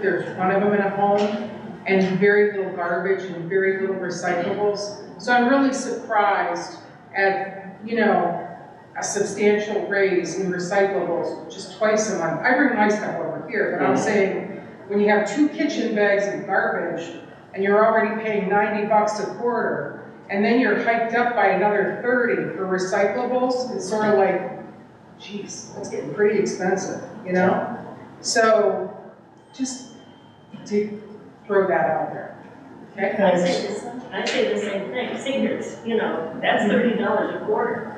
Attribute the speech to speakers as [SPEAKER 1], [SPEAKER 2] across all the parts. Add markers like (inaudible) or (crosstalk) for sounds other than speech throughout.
[SPEAKER 1] There's one of them in a home and very little garbage and very little recyclables. So I'm really surprised at, you know, a substantial raise in recyclables just twice a month. I bring my stuff over here, but I'm saying, when you have two kitchen bags of garbage and you're already paying ninety bucks a quarter, and then you're hiked up by another thirty for recyclables, it's sort of like, geez, that's getting pretty expensive, you know? So, just to throw that out there, okay?
[SPEAKER 2] I say the same, I say the same thing, seniors, you know, that's thirty dollars a quarter.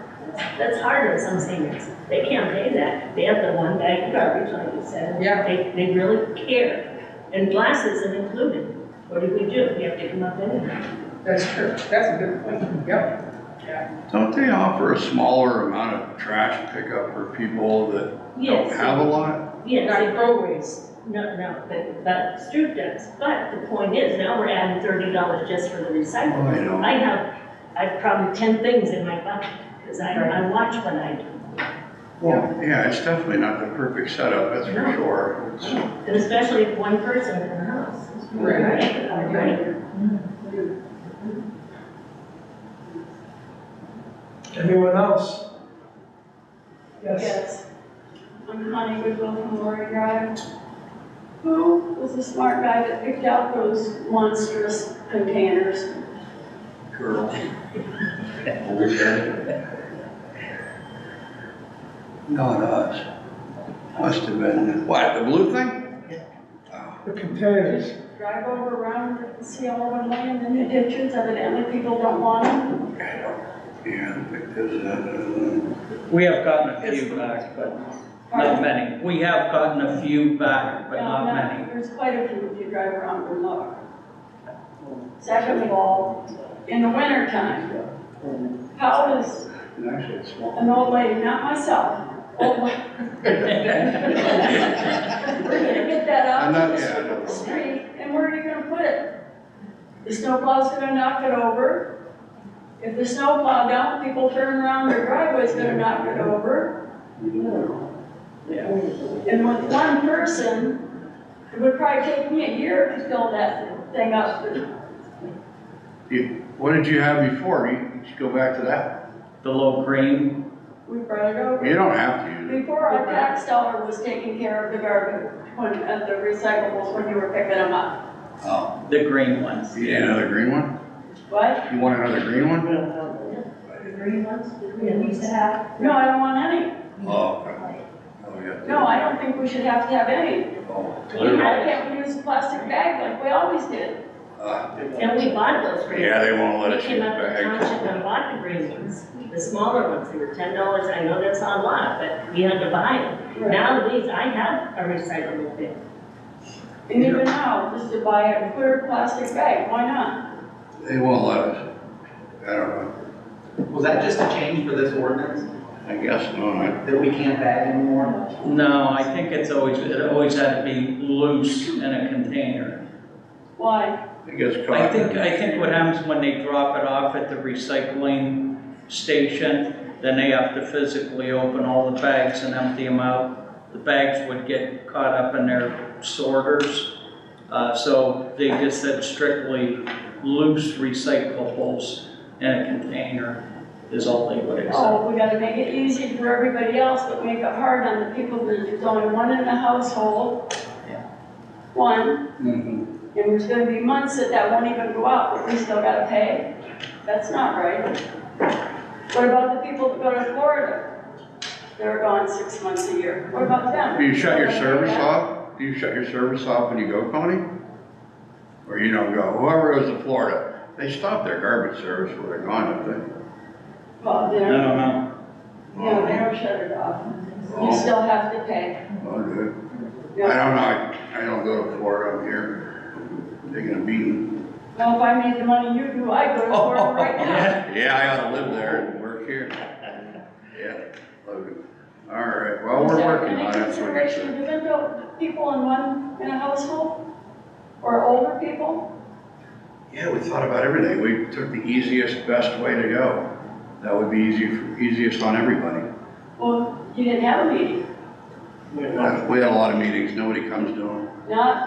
[SPEAKER 2] That's hard on some seniors, they can't pay that, they have the one bag of garbage, like you said.
[SPEAKER 1] Yeah.
[SPEAKER 2] They, they really care, and glasses are included, what do we do, we have to come up anyway.
[SPEAKER 1] That's true, that's a good point, yep.
[SPEAKER 3] Don't they offer a smaller amount of trash pickup for people that don't
[SPEAKER 2] Yes,
[SPEAKER 3] have a lot?
[SPEAKER 2] yes,
[SPEAKER 1] Not
[SPEAKER 2] it-
[SPEAKER 1] throwaways,
[SPEAKER 2] no, no, but, but Stroop does, but the point is, now we're adding thirty dollars just for the recycling.
[SPEAKER 3] Oh, I know.
[SPEAKER 2] I have, I've probably ten things in my bucket, because I, I watch what I do.
[SPEAKER 3] Well, yeah, it's definitely not the perfect setup, that's for sure. It's-
[SPEAKER 2] And especially if one person in the house.
[SPEAKER 1] Right.
[SPEAKER 2] Right.
[SPEAKER 4] Anyone else? Yes.
[SPEAKER 5] Yes. I'm Connie Goodwill from Lori Drive. Who was the smart guy that picked out those monstrous containers?
[SPEAKER 3] (laughs) Girl. Not us. Must have been, what, the blue thing?
[SPEAKER 4] The containers.
[SPEAKER 5] Just drive over around and see all of them laying in the ditches, evidently people don't want them.
[SPEAKER 3] Yeah, because, uh,
[SPEAKER 6] We have gotten a few back, but not many. We have gotten a few back, but
[SPEAKER 5] No,
[SPEAKER 6] not
[SPEAKER 5] no,
[SPEAKER 6] many.
[SPEAKER 5] There's quite a few if you drive around and look. Second of all, in the wintertime, how does
[SPEAKER 3] and actually it's small.
[SPEAKER 5] an old lady, not myself,
[SPEAKER 3] Oh.
[SPEAKER 5] old lady, We're gonna get that
[SPEAKER 3] I'm
[SPEAKER 5] out
[SPEAKER 3] not-
[SPEAKER 5] on
[SPEAKER 3] yeah, I know.
[SPEAKER 5] the street, and where are you gonna put it? The snowplow's gonna knock it over. If the snowplow down, people turn around, their driveway's gonna knock it over. And with one person, it would probably take me a year to fill that thing up.
[SPEAKER 3] You- What did you have before? You you should go back to that.
[SPEAKER 6] The low green,
[SPEAKER 5] We brought it over.
[SPEAKER 3] You don't have to use it.
[SPEAKER 5] Before our tax dollar was taking care of the garbage, when, of the recyclables, when you were picking them up.
[SPEAKER 3] Oh,
[SPEAKER 6] the green ones.
[SPEAKER 3] you need another green one?
[SPEAKER 5] What?
[SPEAKER 3] You want another green one?
[SPEAKER 2] The green ones, the
[SPEAKER 5] Yeah,
[SPEAKER 2] green
[SPEAKER 5] we
[SPEAKER 2] ones.
[SPEAKER 5] used to have. No, I don't want any.
[SPEAKER 3] Oh, okay. Oh, we got the-
[SPEAKER 5] No, I don't think we should have to have any.
[SPEAKER 3] Oh,
[SPEAKER 2] We
[SPEAKER 3] clear.
[SPEAKER 2] had-
[SPEAKER 5] Why can't we use a plastic bag like we always did?
[SPEAKER 3] Uh,
[SPEAKER 2] And we bought those green
[SPEAKER 3] Yeah,
[SPEAKER 2] ones.
[SPEAKER 3] they won't let us
[SPEAKER 2] We
[SPEAKER 3] use
[SPEAKER 2] came up with
[SPEAKER 3] bags.
[SPEAKER 2] township and bought the green ones, the smaller ones, they were ten dollars, I know that's not a lot, but we had to buy them. Now these, I have a recyclable bin.
[SPEAKER 5] And even now, just to buy a clear plastic bag, why not?
[SPEAKER 3] They won't let us. I don't know.
[SPEAKER 7] Was that just a change for this ordinance,
[SPEAKER 3] I guess not.
[SPEAKER 7] that we can't bag anymore?
[SPEAKER 6] No, I think it's always, it always had to be loose in a container.
[SPEAKER 5] Why?
[SPEAKER 3] It gets caught.
[SPEAKER 6] I think, I think what happens when they drop it off at the recycling station, then they have to physically open all the bags and empty them out. The bags would get caught up in their sorters. Uh, so they just said strictly loose recyclables in a container is all they would accept.
[SPEAKER 5] Oh, we gotta make it easy for everybody else, but make it hard on the people that there's only one in the household.
[SPEAKER 6] Yeah.
[SPEAKER 5] One,
[SPEAKER 3] Mhm.
[SPEAKER 5] and there's gonna be months that that won't even go out, but we still gotta pay. That's not right. What about the people that go to Florida? They're gone six months a year. What about them?
[SPEAKER 3] Do you shut your service
[SPEAKER 5] Yeah.
[SPEAKER 3] off? Do you shut your service off when you go, Connie? Or you don't go? Whoever goes to Florida, they stop their garbage service where they're gone, don't
[SPEAKER 5] Well, they
[SPEAKER 6] I
[SPEAKER 5] don't,
[SPEAKER 6] don't know.
[SPEAKER 3] they?
[SPEAKER 5] no, they don't shut it off. You
[SPEAKER 3] Oh,
[SPEAKER 5] still have to pay.
[SPEAKER 3] Oh, good. I
[SPEAKER 5] Yeah.
[SPEAKER 3] don't know. I- I don't go to Florida. I'm here. Taking a beating.
[SPEAKER 5] Well, if I made the money you do, I'd go to Florida right now.
[SPEAKER 3] Yeah, I ought to live there and work here. Yeah, Logan. All right, well,
[SPEAKER 5] Is
[SPEAKER 3] we're
[SPEAKER 5] there
[SPEAKER 3] working
[SPEAKER 5] any
[SPEAKER 3] on it, so we
[SPEAKER 5] consideration
[SPEAKER 3] can,
[SPEAKER 5] given to people in one, in a household? Or older people?
[SPEAKER 3] yeah, we thought about everything. We took the easiest, best way to go. That would be easy, easiest on everybody.
[SPEAKER 5] Well, you didn't have a meeting,
[SPEAKER 3] We had a lot of meetings, nobody comes to them.
[SPEAKER 5] not